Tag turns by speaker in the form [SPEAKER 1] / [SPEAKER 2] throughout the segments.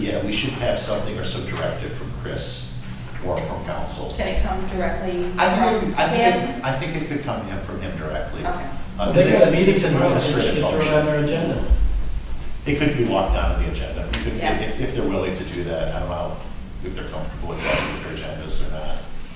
[SPEAKER 1] yeah, we should have something or some directive from Chris or from council.
[SPEAKER 2] Can it come directly from
[SPEAKER 1] I think, it- I think,
[SPEAKER 2] him?
[SPEAKER 1] it- I think it could come in from him directly. Uh,
[SPEAKER 2] Okay.
[SPEAKER 3] Uh,
[SPEAKER 1] Because it's, a meeting, it's an administrative
[SPEAKER 3] Well, they should throw it on
[SPEAKER 1] function.
[SPEAKER 3] their agenda.
[SPEAKER 1] It could be locked down to the agenda. We could-
[SPEAKER 2] Yeah.
[SPEAKER 1] If, if they're willing to do that, I don't know if they're comfortable with that, with their agendas or not,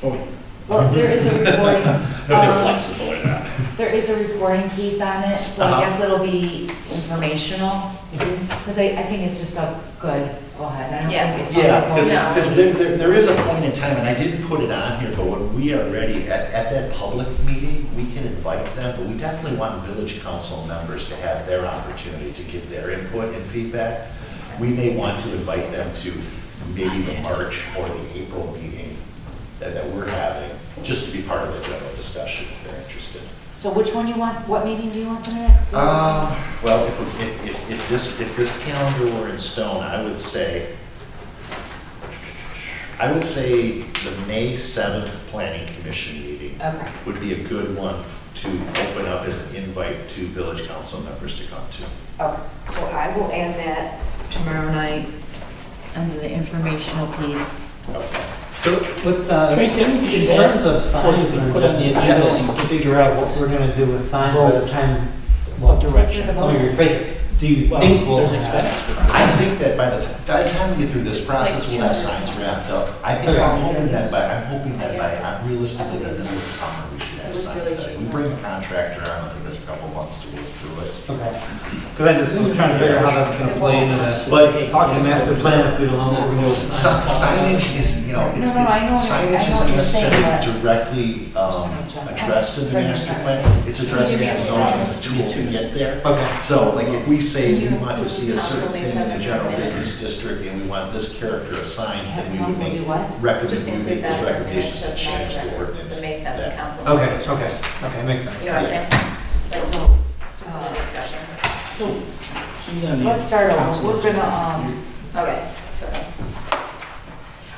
[SPEAKER 3] Oh,
[SPEAKER 4] Well, there is a reporting,
[SPEAKER 1] if they're
[SPEAKER 4] um,
[SPEAKER 1] flexible or not.
[SPEAKER 4] there is a reporting piece on it, so I
[SPEAKER 1] Uh-huh.
[SPEAKER 4] guess it'll be informational. Because I, I think it's just a good, go ahead, I don't think it's. a
[SPEAKER 1] Yeah, because,
[SPEAKER 4] reporting
[SPEAKER 1] because
[SPEAKER 4] piece.
[SPEAKER 1] there, there is a point in time, and I didn't put it on here, but when we are ready, at, at that public meeting, we can invite them, but we definitely want village council members to have their opportunity to give their input and feedback. We may want to invite them to maybe the March or the April meeting that, that we're having, just to be part of the general discussion if they're interested.
[SPEAKER 4] So which one you want, what meeting do you want for that?
[SPEAKER 1] Um, well, if, if, if, if this, if this calendar were in stone, I would say, I would say the May seventh planning commission meeting
[SPEAKER 4] Okay,
[SPEAKER 1] would be a good one to open up as an invite to village council members to come to.
[SPEAKER 4] okay, so I will add that tomorrow night under the informational piece.
[SPEAKER 1] Okay.
[SPEAKER 5] So with, uh,
[SPEAKER 3] Tracy, I think you
[SPEAKER 5] in
[SPEAKER 3] should ask
[SPEAKER 5] terms of signs,
[SPEAKER 3] before you
[SPEAKER 5] and
[SPEAKER 3] put
[SPEAKER 5] put
[SPEAKER 3] it
[SPEAKER 5] on
[SPEAKER 3] on
[SPEAKER 5] the agenda
[SPEAKER 1] Yes.
[SPEAKER 5] and figure out what we're gonna do with signs by the
[SPEAKER 3] Vote.
[SPEAKER 5] time, well,
[SPEAKER 4] direction?
[SPEAKER 5] let me rephrase it. Do you
[SPEAKER 3] Well,
[SPEAKER 5] think we'll
[SPEAKER 3] there's
[SPEAKER 5] have?
[SPEAKER 3] expense.
[SPEAKER 1] I think that by the, ti- by the time we get through this process, we'll have signs wrapped up. I think, I'm hoping that by, I'm hoping that by, uh, realistically, by the middle of summer, we should have signs done. We bring a contractor on, it'll take us a couple months to work through it.
[SPEAKER 5] Okay. Cause I just, was trying to figure out how that's gonna play into that.
[SPEAKER 3] But-
[SPEAKER 5] Talk to master plan if we don't know what we're doing.
[SPEAKER 1] Si- Signage is, you know, it's,
[SPEAKER 4] No, no, I know
[SPEAKER 1] it's-
[SPEAKER 4] what you're- I
[SPEAKER 1] signage
[SPEAKER 4] know what
[SPEAKER 1] isn't
[SPEAKER 4] you're saying,
[SPEAKER 1] necessarily directly um, addressed in the master plan. It's addressed in the zone, it's a tool to get there.
[SPEAKER 5] Okay.
[SPEAKER 1] So like if we say we want to see a certain thing in the general business district and we want this character assigned, then we would
[SPEAKER 4] Council do what?
[SPEAKER 1] make,
[SPEAKER 2] Just
[SPEAKER 1] recommend, we would make
[SPEAKER 2] include that
[SPEAKER 1] those
[SPEAKER 2] in the minutes,
[SPEAKER 1] recommendations to
[SPEAKER 2] doesn't
[SPEAKER 1] change
[SPEAKER 2] matter,
[SPEAKER 1] the ordinance.
[SPEAKER 2] the May 7th
[SPEAKER 1] that-
[SPEAKER 2] council.
[SPEAKER 5] Okay, okay, okay, makes sense.
[SPEAKER 2] You know what I'm saying? Like, just
[SPEAKER 4] So,
[SPEAKER 2] a little discussion.
[SPEAKER 4] so
[SPEAKER 3] She's on the
[SPEAKER 4] let's start over,
[SPEAKER 3] council.
[SPEAKER 4] we're gonna, um,
[SPEAKER 2] Okay, sorry.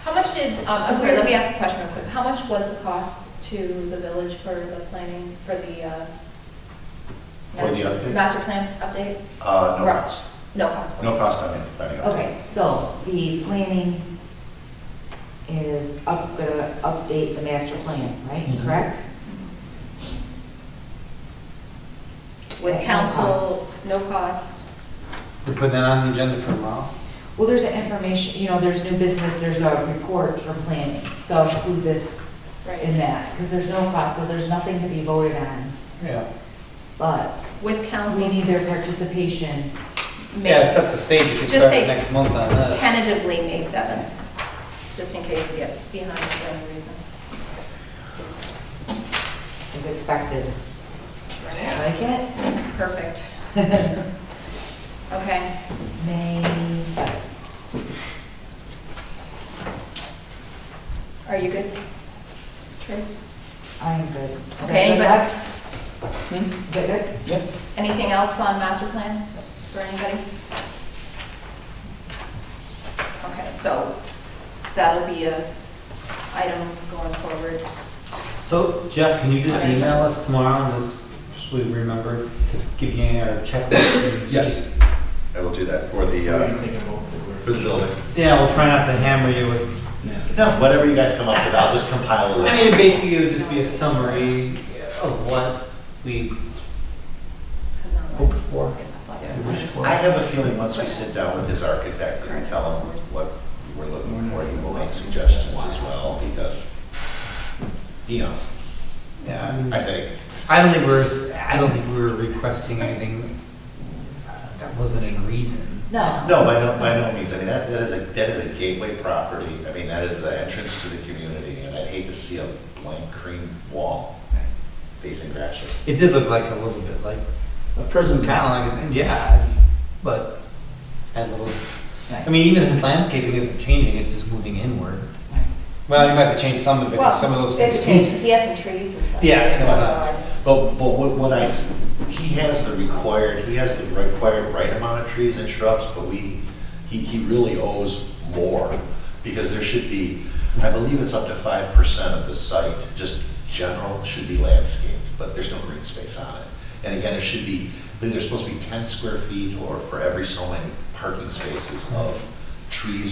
[SPEAKER 2] How much did, um, I'm sorry, let me ask a question real quick. How much was the cost to the village for the planning, for the, uh,
[SPEAKER 1] For the update?
[SPEAKER 2] master plan update?
[SPEAKER 1] Uh, no
[SPEAKER 2] Right.
[SPEAKER 1] cost,
[SPEAKER 2] No cost.
[SPEAKER 1] no cost on it, planning update.
[SPEAKER 4] okay, so the planning is up, gonna update the master plan, right,
[SPEAKER 1] Mm-hmm.
[SPEAKER 5] Mhm.
[SPEAKER 4] correct?
[SPEAKER 2] With
[SPEAKER 4] No
[SPEAKER 2] council, no cost.
[SPEAKER 5] You're putting that on the agenda for a while?
[SPEAKER 4] Well, there's an information, you know, there's new business, there's a report for planning, so include this in that, because there's no cost, so there's nothing to be voted on,
[SPEAKER 5] Yeah.
[SPEAKER 4] but
[SPEAKER 2] With
[SPEAKER 4] we
[SPEAKER 2] council.
[SPEAKER 4] need their participation.
[SPEAKER 2] May-
[SPEAKER 5] Yeah, it sets the stage if you
[SPEAKER 2] Just
[SPEAKER 5] start
[SPEAKER 2] say
[SPEAKER 5] next month on this.
[SPEAKER 2] Tentatively, May 7th, just in case we get behind for any reason.
[SPEAKER 4] is expected. Like it?
[SPEAKER 2] Perfect. Okay.
[SPEAKER 4] May 7th.
[SPEAKER 2] Are you good, Trace?
[SPEAKER 4] I am good. Is that
[SPEAKER 2] Okay,
[SPEAKER 4] good,
[SPEAKER 2] but- Hmm?
[SPEAKER 4] Rob? Is that good?
[SPEAKER 5] Yeah.
[SPEAKER 2] Anything else on master plan for anybody? Okay, so that'll be a item going forward.
[SPEAKER 5] So Jeff, can you just email us tomorrow and this, so we remember to give you our checklist?
[SPEAKER 1] Yes, I will do that for the,
[SPEAKER 3] What do
[SPEAKER 1] uh,
[SPEAKER 4] um,
[SPEAKER 3] you think about the
[SPEAKER 1] for
[SPEAKER 3] word?
[SPEAKER 1] the building.
[SPEAKER 5] Yeah, we'll try not to hammer you with,
[SPEAKER 1] No, whatever you guys come up with, I'll just compile a
[SPEAKER 5] I
[SPEAKER 1] list.
[SPEAKER 5] mean, basically it would just be a summary of what we hoped for.
[SPEAKER 1] I have a feeling once we sit down with his architect and tell him what we're looking for, he will make suggestions as well, because he knows,
[SPEAKER 5] Yeah, I
[SPEAKER 1] I
[SPEAKER 5] mean,
[SPEAKER 1] think.
[SPEAKER 5] I don't think we're, s- I don't think we were requesting anything uh, that wasn't in reason.
[SPEAKER 4] No.
[SPEAKER 1] No, by no, by no means, I mean, that, that is a, that is a gateway property, I mean, that is the entrance to the community, and I'd hate to see a blank cream wall facing Gratiot.
[SPEAKER 5] It did look like a little bit like,
[SPEAKER 3] A prison council.
[SPEAKER 5] kind of like, a- yeah, but had a little, I mean, even his landscaping isn't changing, it's just moving inward. Well, you might have to change some of it, 'cause some of those things.
[SPEAKER 2] He has some trees and stuff.
[SPEAKER 5] Yeah, I know that.
[SPEAKER 1] But, but what, what I, s- he has the required, he has the required right amount of trees and shrubs, but we, he, he really owes more, because there should be, I believe it's up to five percent of the site, just general, should be landscaped, but there's no green space on it. And again, it should be, I believe there's supposed to be ten square feet or for every so many parking spaces of trees